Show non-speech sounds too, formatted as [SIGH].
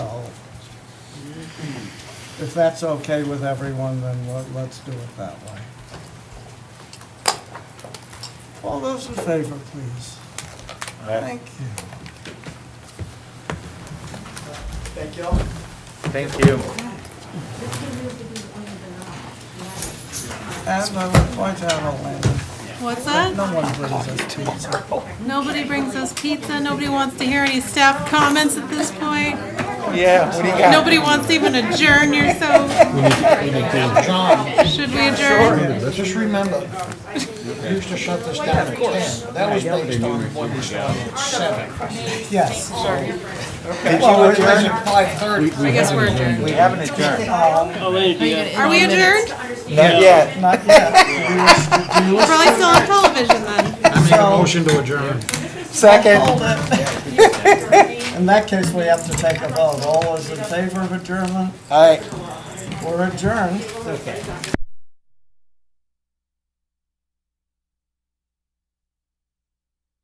Oh. If that's okay with everyone, then let- let's do it that way. All those in favor, please. Thank you. Thank y'all. Thank you. And I would point out, Elena, What's no that? one brings us pizza. Nobody brings us pizza. Nobody wants to hear any staff comments at this point. Oh, Yeah, what do you got? Nobody wants to even adjourn yourself. John, Should we adjourn? just remember, you used to shut this down at ten, but that was based on what we started at seven. Yes. Well, it was at five thirty. I guess we're adjourned. We haven't adjourned. uh, Are we adjourned? Not yet. Not yet. We're probably still on television then. I make a motion to adjourn. [LAUGHS] Second. [LAUGHS] In that case, we have to take a vote. All those in favor of adjournment? Aye. We're adjourned.